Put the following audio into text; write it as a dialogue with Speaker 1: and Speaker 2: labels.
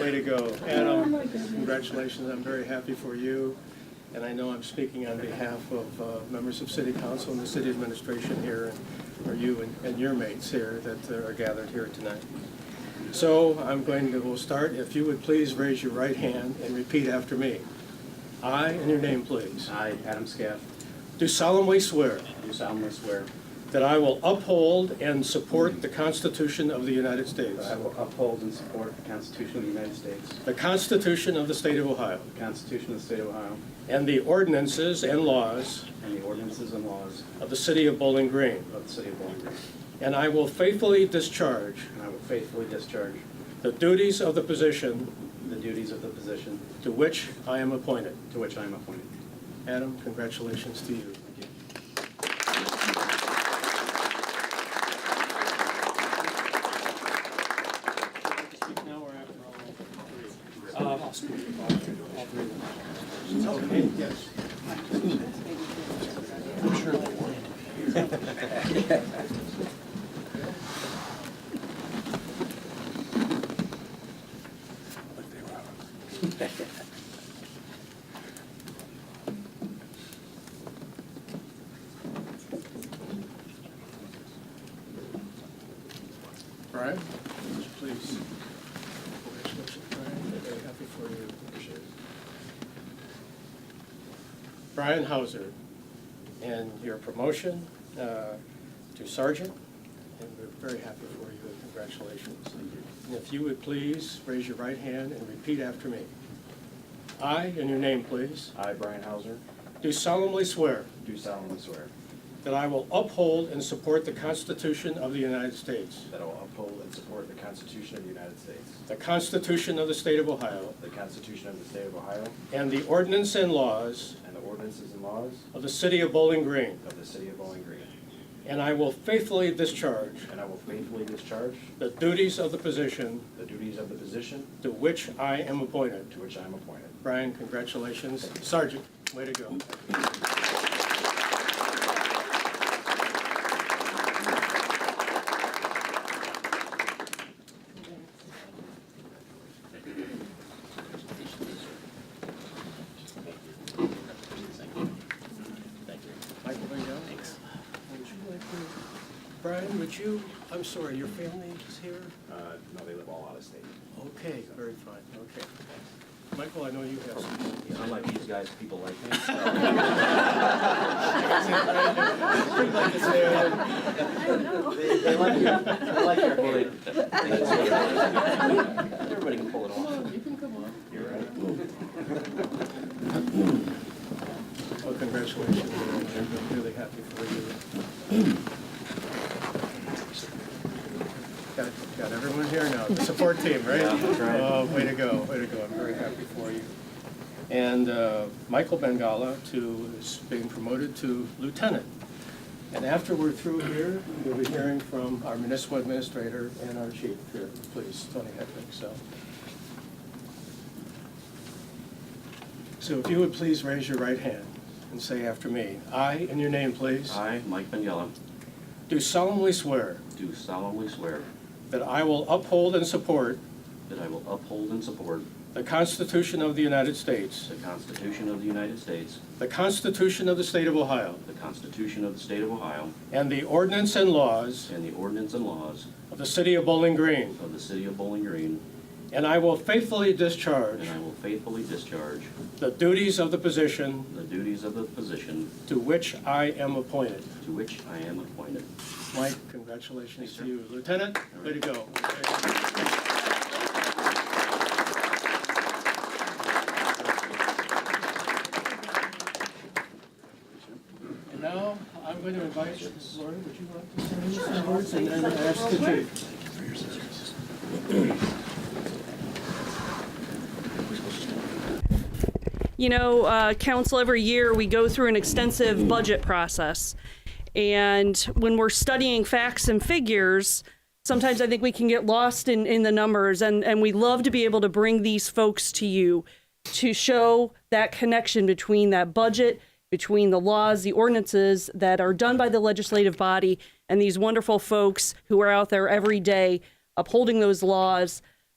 Speaker 1: Way to go. Adam, congratulations, I'm very happy for you, and I know I'm speaking on behalf of uh, members of city council and the city administration here, and- or you and- and your mates here that uh, are gathered here tonight. So I'm going to, we'll start, if you would please raise your right hand and repeat after me. I, and your name please,
Speaker 2: I, Adam Scaff,
Speaker 1: do solemnly swear
Speaker 2: do solemnly swear
Speaker 1: that I will uphold and support the Constitution of the United States,
Speaker 2: that I will uphold and support the Constitution of the United States,
Speaker 1: the Constitution of the State of Ohio,
Speaker 2: the Constitution of the State of Ohio,
Speaker 1: and the ordinances and laws
Speaker 2: and the ordinances and laws
Speaker 1: of the City of Bowling Green,
Speaker 2: of the City of Bowling Green,
Speaker 1: and I will faithfully discharge
Speaker 2: and I will faithfully discharge
Speaker 1: the duties of the position
Speaker 2: the duties of the position
Speaker 1: to which I am appointed.
Speaker 2: to which I am appointed.
Speaker 1: Adam, congratulations to you.
Speaker 2: Thank you.
Speaker 3: Speak now or after all? Uh, I'll speak. All three.
Speaker 1: Okay, yes. Brian, please. Congratulations, Brian. Very happy for you. Appreciate it. Brian Hauser and your promotion uh, to sergeant, and we're very happy for you, and congratulations. And if you would please raise your right hand and repeat after me. I, and your name please,
Speaker 4: I, Brian Hauser,
Speaker 1: do solemnly swear
Speaker 4: do solemnly swear
Speaker 1: that I will uphold and support the Constitution of the United States,
Speaker 4: that I will uphold and support the Constitution of the United States,
Speaker 1: the Constitution of the State of Ohio,
Speaker 4: the Constitution of the State of Ohio,
Speaker 1: and the ordinance and laws
Speaker 4: and the ordinances and laws
Speaker 1: of the City of Bowling Green,
Speaker 4: of the City of Bowling Green,
Speaker 1: and I will faithfully discharge
Speaker 4: and I will faithfully discharge
Speaker 1: the duties of the position
Speaker 4: the duties of the position
Speaker 1: to which I am appointed.
Speaker 4: to which I am appointed.
Speaker 1: Brian, congratulations. Sergeant, way to go. Michael, there you go. Would you like to- Brian, would you, I'm sorry, your family is here?
Speaker 4: Uh, No, they live all out of state.
Speaker 1: Okay, very fine, okay. Michael, I know you have some.
Speaker 5: Unlike these guys, people like me.
Speaker 2: They they like your, they like your hair.
Speaker 5: Everybody can pull it off.
Speaker 1: Well, congratulations, I'm really happy for you. Got, got everyone here now, the support team, right? Oh, way to go, way to go, I'm very happy for you. And uh, Michael Bengala to, is being promoted to lieutenant. And after we're through here, we'll be hearing from our municipal administrator and our chief here, please, Tony Hedrick, so. So if you would please raise your right hand and say after me, I, and your name, please,
Speaker 5: I, Mike Bignella,
Speaker 1: do solemnly swear
Speaker 5: do solemnly swear
Speaker 1: that I will uphold and support
Speaker 5: that I will uphold and support
Speaker 1: the Constitution of the United States,
Speaker 5: the Constitution of the United States,
Speaker 1: the Constitution of the State of Ohio,
Speaker 5: the Constitution of the State of Ohio,
Speaker 1: and the ordinance and laws
Speaker 5: and the ordinance and laws
Speaker 1: of the City of Bowling Green,
Speaker 5: of the City of Bowling Green,
Speaker 1: and I will faithfully discharge
Speaker 5: and I will faithfully discharge
Speaker 1: the duties of the position
Speaker 5: the duties of the position
Speaker 1: to which I am appointed.
Speaker 5: to which I am appointed.
Speaker 1: Mike, congratulations to you. Lieutenant, way to go. And now, I'm going to invite, Lori, would you like to say a few words and then ask the chief?
Speaker 6: You know, uh, council every year we go through an extensive budget process. And when we're studying facts and figures, sometimes I think we can get lost in, in the numbers. And, and we love to be able to bring these folks to you to show that connection between that budget, between the laws, the ordinances that are done by the legislative body, and these wonderful folks who are out there every day upholding those laws